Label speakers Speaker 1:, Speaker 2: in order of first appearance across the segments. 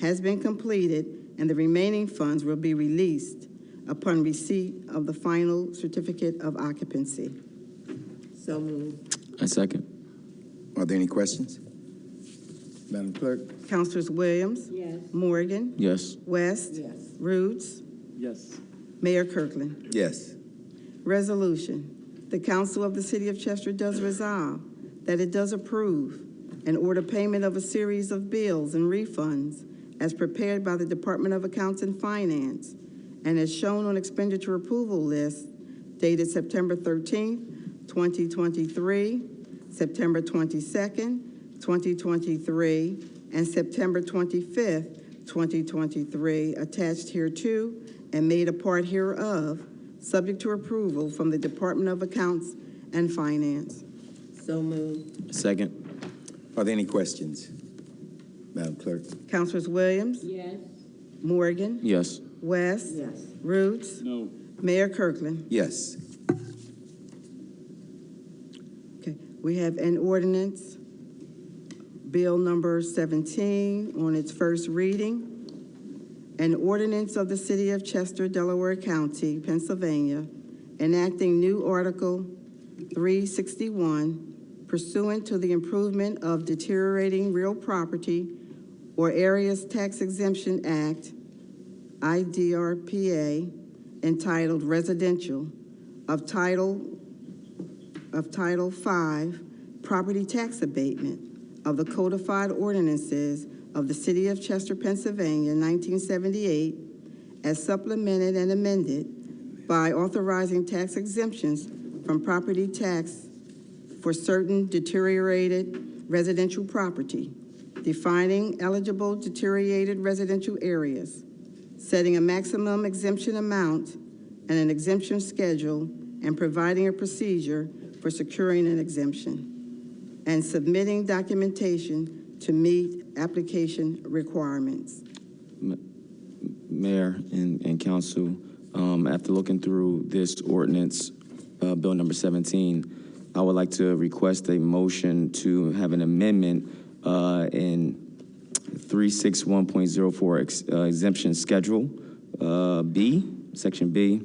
Speaker 1: has been completed, and the remaining funds will be released upon receipt of the final certificate of occupancy. So moved.
Speaker 2: I second.
Speaker 3: Are there any questions? Madam Clerk?
Speaker 1: Councilors Williams?
Speaker 4: Yes.
Speaker 1: Morgan?
Speaker 2: Yes.
Speaker 1: West?
Speaker 4: Yes.
Speaker 1: Roots?
Speaker 5: Yes.
Speaker 1: Mayor Kirkland.
Speaker 3: Yes.
Speaker 1: Resolution, the council of the city of Chester does resolve that it does approve and order payment of a series of bills and refunds as prepared by the Department of Accounts and Finance and as shown on expenditure approval list dated September 13th, 2023, September 22nd, 2023, and September 25th, 2023, attached hereto and made a part hereof, subject to approval from the Department of Accounts and Finance.
Speaker 4: So moved.
Speaker 2: Second.
Speaker 3: Are there any questions? Madam Clerk?
Speaker 1: Councilors Williams,
Speaker 4: Yes.
Speaker 1: Morgan,
Speaker 2: Yes.
Speaker 1: West,
Speaker 4: Yes.
Speaker 1: Roots,
Speaker 5: No.
Speaker 1: Mayor Kirkland.
Speaker 3: Yes.
Speaker 1: Okay, we have an ordinance, Bill Number 17, on its first reading. An ordinance of the City of Chester, Delaware County, Pennsylvania, enacting new Article 361 pursuant to the improvement of deteriorating real property or areas tax exemption act, IDRPA, entitled residential, of title, of Title V, property tax abatement of the codified ordinances of the City of Chester, Pennsylvania, 1978, as supplemented and amended by authorizing tax exemptions from property tax for certain deteriorated residential property, defining eligible deteriorated residential areas, setting a maximum exemption amount and an exemption schedule, and providing a procedure for securing an exemption, and submitting documentation to meet application requirements.
Speaker 2: Mayor and, and council, um, after looking through this ordinance, uh, bill number 17, I would like to request a motion to have an amendment, uh, in 361.04 ex- uh, exemption schedule, uh, B, section B.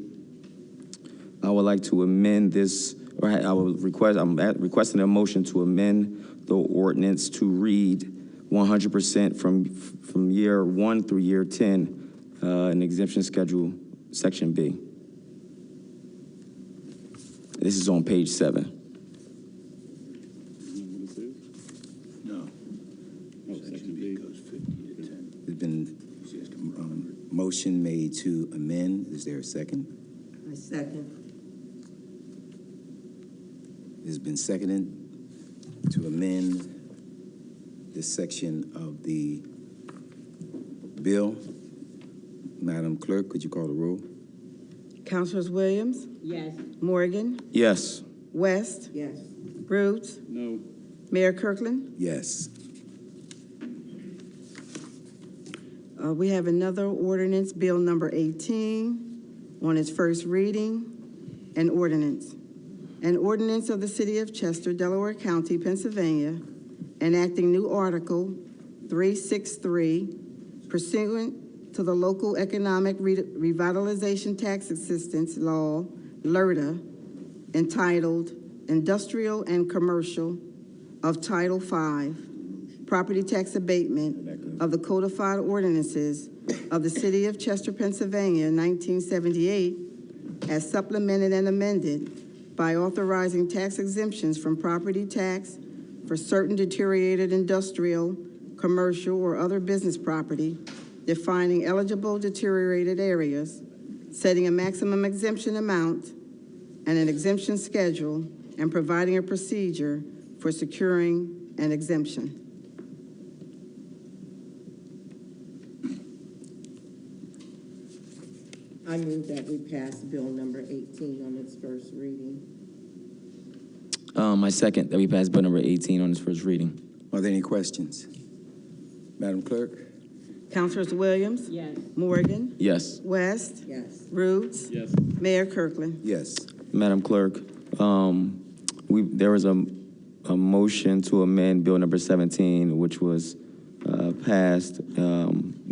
Speaker 2: I would like to amend this, or I I would request, I'm at- requesting a motion to amend the ordinance to read 100% from, from year one through year 10, uh, an exemption schedule, section B. This is on page seven.
Speaker 5: What is it?
Speaker 3: No.
Speaker 5: Oh, section B.
Speaker 3: There's been um, motion made to amend. Is there a second?
Speaker 4: I second.
Speaker 3: It's been seconded to amend this section of the bill. Madam Clerk, could you call the roll?
Speaker 1: Councilors Williams,
Speaker 4: Yes.
Speaker 1: Morgan,
Speaker 2: Yes.
Speaker 1: West,
Speaker 4: Yes.
Speaker 1: Rhodes,
Speaker 5: No.
Speaker 1: Mayor Kirkland.
Speaker 3: Yes.
Speaker 1: Uh, We have another ordinance, Bill Number 18, on its first reading, an ordinance. An ordinance of the City of Chester, Delaware County, Pennsylvania, enacting new Article 363 pursuant to the Local Economic Re- Revitalization Tax Assistance Law, E LRTA, entitled Industrial and Commercial of Title V, Property Tax Abatement of the Codified Ordinances of the City of Chester, Pennsylvania, 1978, as supplemented and amended by authorizing tax exemptions from property tax for certain deteriorated industrial, commercial, or other business property, defining eligible deteriorated areas, setting a maximum exemption amount and an exemption schedule, and providing a procedure for securing an exemption.
Speaker 4: I move that we pass bill number 18 on its first reading.
Speaker 2: Um, I second that we pass bill number 18 on its first reading.
Speaker 3: Are there any questions? Madam Clerk?
Speaker 1: Councilors Williams,
Speaker 4: Yes.
Speaker 1: Morgan,
Speaker 2: Yes.
Speaker 1: West,
Speaker 4: Yes.
Speaker 1: Rhodes,
Speaker 5: Yes.
Speaker 1: Mayor Kirkland.
Speaker 3: Yes.
Speaker 2: Madam Clerk, um, we, there was a, a motion to amend bill number 17, which was, uh, passed, um,